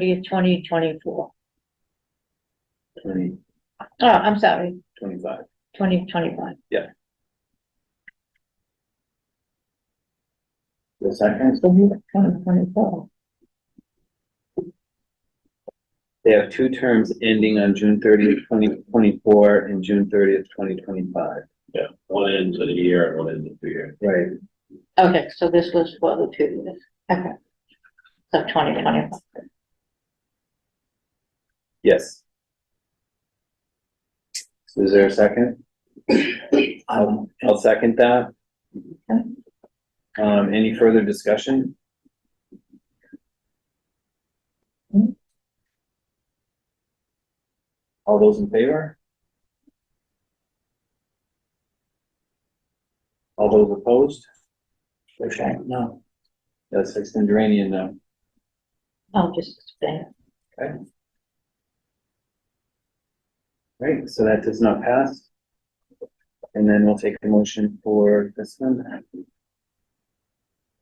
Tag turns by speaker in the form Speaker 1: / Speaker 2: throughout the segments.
Speaker 1: thirtieth, twenty twenty-four.
Speaker 2: twenty,
Speaker 1: Oh, I'm sorry,
Speaker 2: twenty-five.
Speaker 1: twenty twenty-one.
Speaker 2: The second,
Speaker 1: Twenty twenty-four.
Speaker 2: they have two terms ending on June thirtieth, twenty twenty-four and June thirtieth, twenty twenty-five.
Speaker 3: Yeah, one end of the year and one end of the year.
Speaker 2: Right.
Speaker 1: Okay, so this was for the two years. Okay. So twenty twenty-one.
Speaker 2: Yes. Is there a second? I'll, I'll second that. Um, any further discussion? All those in favor? All those opposed? Okay, no. That's Sexton Duranian, no.
Speaker 1: I'll just explain.
Speaker 2: Right, so that does not pass. And then we'll take the motion for this one.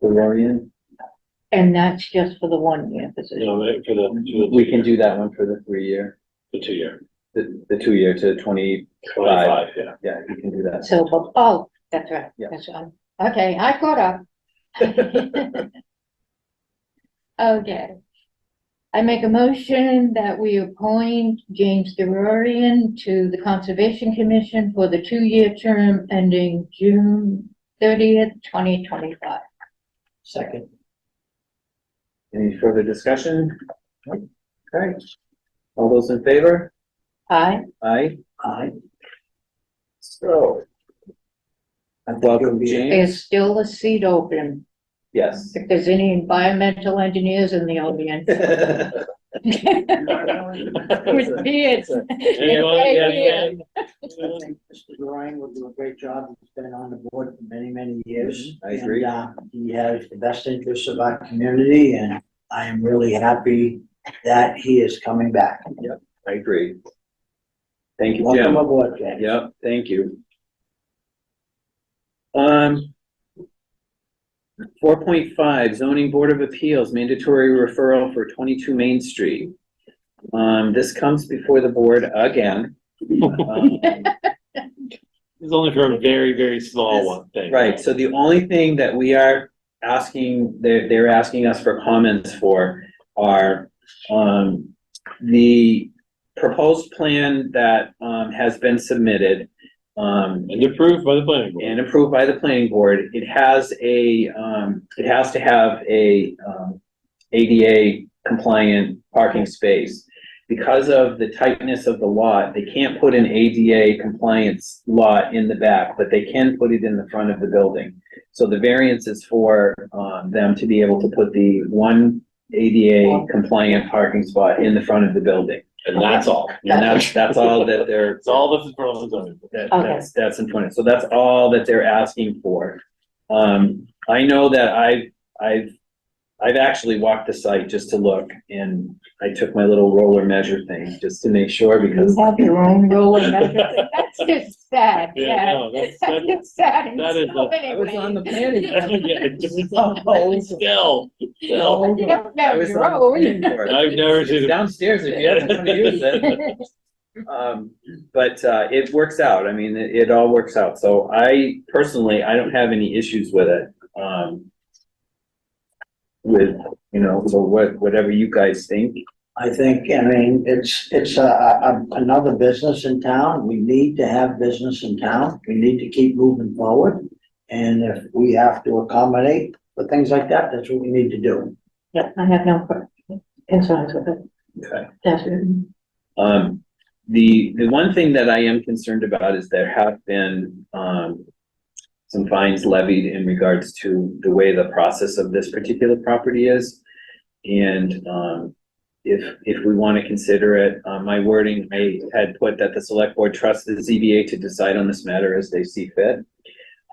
Speaker 2: The Lorian,
Speaker 1: And that's just for the one-year
Speaker 3: You
Speaker 1: position.
Speaker 3: know, like, for the, to the.
Speaker 2: we can do that one for the three year,
Speaker 3: The two year,
Speaker 2: the, the two year to twenty,
Speaker 3: twenty-five, yeah.
Speaker 2: yeah, you can do that.
Speaker 1: So, but- oh, that's right.
Speaker 2: Yeah.
Speaker 1: That's right. Okay, I caught up. Okay. I make a motion that we appoint James DeRorian to the Conservation Commission for the two-year term ending June thirtieth, twenty twenty-five.
Speaker 2: Second. Any further discussion? Okay, all those in favor?
Speaker 1: Aye?
Speaker 2: Aye. Aye. So. I welcome James,
Speaker 1: Is still a seat open
Speaker 2: yes.
Speaker 1: if there's any environmental engineers in the audience. With beards.
Speaker 3: yeah,
Speaker 4: Mr. Ryan will do a great job. He's been on the board for many, many years.
Speaker 2: Mm-hmm. I agree.
Speaker 4: And, uh, He has the best interests of our community and I am really happy that he is coming back.
Speaker 2: I agree. Thank you,
Speaker 4: Welcome
Speaker 2: Jim.
Speaker 4: aboard, James.
Speaker 2: Yep, thank you. Um. Four point five zoning board of appeals mandatory referral for twenty-two Main Street. Um, this comes before the board again. Um,
Speaker 3: It's only for a very, very small one thing.
Speaker 2: Right, so the only thing that we are asking, they're, they're asking us for comments for are, um, the proposed plan that, um, has been submitted, um,
Speaker 3: And approved by the planning
Speaker 2: and
Speaker 3: board.
Speaker 2: approved by the planning board, it has a, um, it has to have a, um, ADA compliant parking space. Because of the tightness of the lot, they can't put an ADA compliance lot in the back, but they can put it in the front of the building. So the variance is for, um, them to be able to put the one ADA compliant parking spot in the front of the building.
Speaker 3: And that's all.
Speaker 2: And that's, that's all that they're.
Speaker 3: It's all that's in front of the zoning board.
Speaker 2: That,
Speaker 1: Okay.
Speaker 2: that's, that's in front, so that's all that they're asking for. Um, I know that I, I've, I've actually walked the site just to look, and I took my little roller measure thing, just to make sure, because,
Speaker 1: You have your own rule and everything. That's just sad,
Speaker 3: Yeah,
Speaker 1: yeah.
Speaker 3: no, that's-
Speaker 1: That's
Speaker 3: that-
Speaker 1: just sad in
Speaker 3: that is
Speaker 1: so
Speaker 3: a-
Speaker 1: many
Speaker 2: I was on the
Speaker 1: ways.
Speaker 2: planning Oh,
Speaker 3: Yeah, it's just-
Speaker 2: I
Speaker 3: Still, still.
Speaker 1: You don't know
Speaker 2: was
Speaker 1: your
Speaker 2: on the planning board.
Speaker 3: I've never seen
Speaker 2: It's
Speaker 3: it.
Speaker 2: Downstairs, if you haven't come to use it. Um, but, uh, it works out. I mean, it, it all works out. So I personally, I don't have any issues with it. Um, with, you know, so what, whatever you guys think.
Speaker 4: I think, I mean, it's, it's a, a, another business in town. We need to have business in town. We need to keep moving forward. And if we have to accommodate for things like that, that's what we need to do.
Speaker 1: Yeah, I have no que- concerns with it.
Speaker 2: Okay.
Speaker 1: That's it.
Speaker 2: Um, the, the one thing that I am concerned about is there have been, um, some fines levied in regards to the way the process of this particular property is. And, um, if, if we want to consider it, uh, my wording, I had put that the select board trusts the ZBA to decide on this matter as they see fit.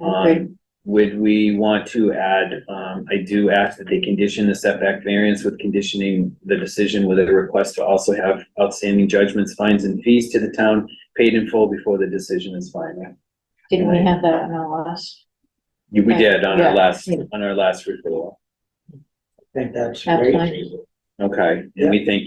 Speaker 1: Okay.
Speaker 2: Um, would we want to add, um, I do ask that they condition the setback variance with conditioning the decision with a request to also have outstanding judgments, fines and fees to the town paid in full before the decision is final.
Speaker 1: Didn't we have that on our last?
Speaker 2: You, we did on
Speaker 1: Yeah.
Speaker 2: our last, on our last referral.
Speaker 4: I think that's
Speaker 1: That's
Speaker 4: great.
Speaker 1: fine.
Speaker 2: Okay, and we think